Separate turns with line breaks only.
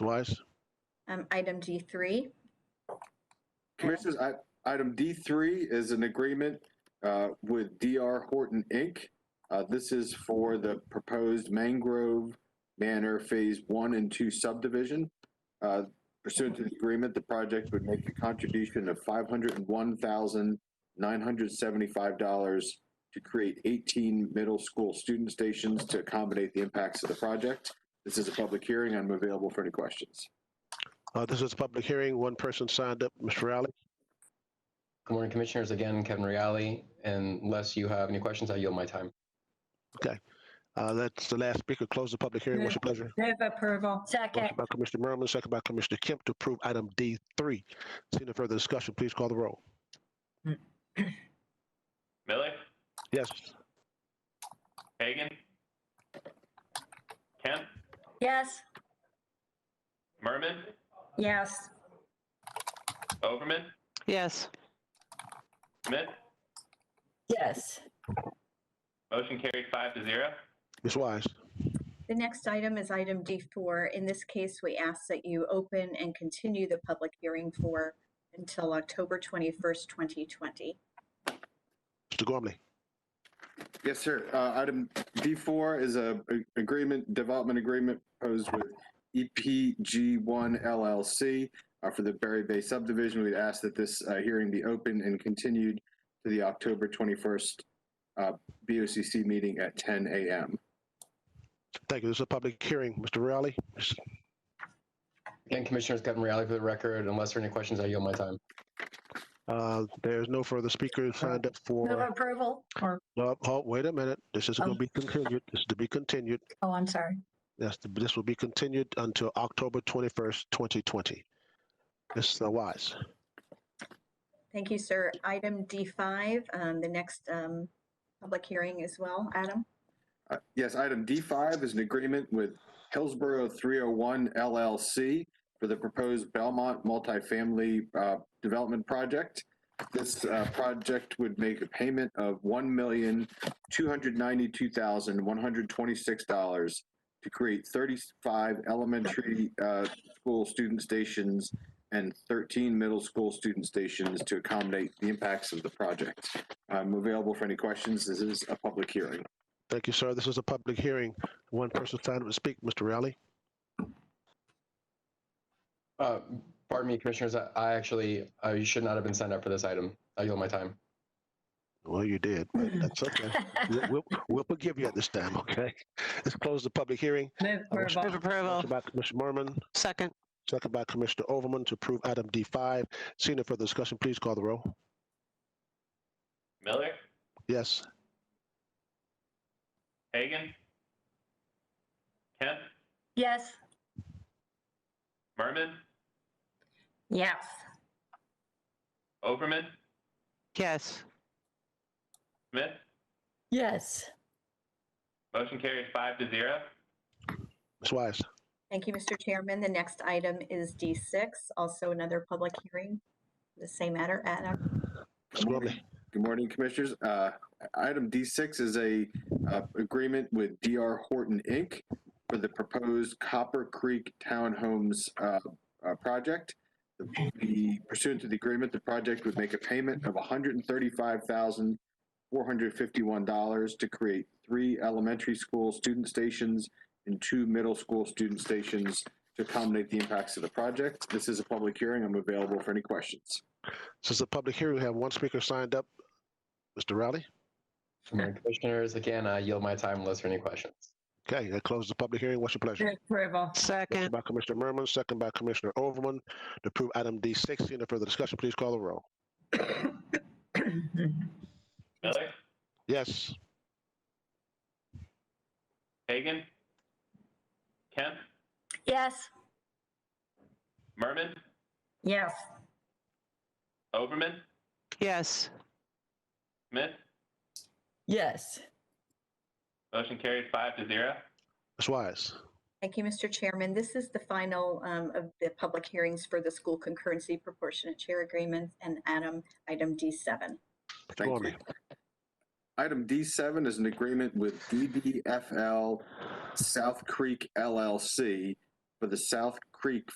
Delise?
Um, item G3,
Commissioners, I- item D3 is an agreement uh, with DR Horton, Inc. Uh, This is for the proposed Mangrove Manor Phase 1 and 2 subdivision. Uh, Pursuant to the agreement, the project would make a contribution of $501,975 to create 18 middle school student stations to accommodate the impacts of the project. This is a public hearing. I'm available for any questions.
Uh, this is a public hearing. One person signed up, Mr. Rowley.
Good morning, Commissioners. Again, Kevin Reale. And Unless you have any questions, I yield my time.
Uh, that's the last speaker. Close the public hearing. What's your pleasure?
Move approval.
Second,
Motion by Commissioner Merman, second by Commissioner Kemp to approve item D3. Seeing no further discussion, please call the roll.
Miller,
Yes,
Hagan, Kemp,
yes,
Merman,
Yes.
Overman,
yes,
Smith.
yes,
Motion carried five to zero.
Ms. Wise.
the next item is item D4. In this case, we ask that you open and continue the public hearing for until October 21st, 2020.
Mr. Gormley.
Yes, sir. Uh, Item D4 is a a- agreement, development agreement proposed with E EPG1 LLC uh, for the Berry Bay subdivision. We'd ask that this uh, hearing be open and continued to the October 21st uh, BOCC meeting at 10 a.m.
Thank you. This is a public hearing. Mr. Rowley? Ms.
Again, Commissioners, Kevin Reale for the record. Unless there are any questions, I yield my time.
Uh, there's no further speakers signed up
move
for,
approval.
uh, oh, wait a minute. This is going to
Um.
be continued. This is to be continued.
Oh, I'm sorry.
Yes, this will be continued until October 21st, 2020. Ms. Wise.
Thank you, sir. Item D5, um, the next um, public hearing as well, Adam.
Uh, Yes, item D5 is an agreement with Hillsborough 301 LLC for the proposed Belmont multifamily uh, development project. This uh, project would make a payment of $1,292,126 to create 35 elementary uh, school student stations and 13 middle school student stations to accommodate the impacts of the project. I'm available for any questions. This is a public hearing.
Thank you, sir. This is a public hearing. One person signed up to speak. Mr. Rowley?
Uh, Pardon me, Commissioners, I I actually, uh, you should not have been signed up for this item. I yield my time.
Well, you did, but that's okay. We'll- We'll, we'll forgive you at this time, okay? Let's close the public hearing.
Move
I wish-
move
approval.
Motion
approval,
by Commissioner Merman,
second,
second by Commissioner Overman to approve item D5. Seeing no further discussion, please call the roll.
Miller,
Yes,
Hagan, Kemp,
Yes,
Merman,
Yes.
Overman,
yes,
Smith.
yes,
Motion carried five to zero.
Ms. Wise.
Thank you, Mr. Chairman. The next item is D6, also another public hearing, the same matter, Adam.
Ms.
Mm.
Gormley.
Good morning, Commissioners. Uh, Item D6 is a uh, agreement with DR Horton, Inc. for the proposed Copper Creek Townhomes uh, uh, project. The Pursuant to the agreement, the project would make a payment of $135,451 to create three elementary school student stations and two middle school student stations to accommodate the impacts of the project. This is a public hearing. I'm available for any questions.
This is a public hearing. We have one speaker signed up. Mr. Rowley?
Good morning, Commissioners, again, I yield my time unless there are any questions.
Okay, that closes the public hearing. What's your pleasure?
Move approval.
Motion
second,
by Commissioner Merman, second by Commissioner Overman to approve item D6. Seeing no further discussion, please call the roll.
Miller,
Yes,
Hagan, Kemp,
yes,
Merman,
Yes.
Overman,
yes,
Smith.
yes,
Motion carried five to zero.
Ms. Wise.
Thank you, Mr. Chairman. This is the final um, of the public hearings for the school concurrency proportionate share agreements and Adam, item D7.
Mr.
Thank
Gormley.
you. Item D7 is an agreement with E DBFL South Creek LLC for the South Creek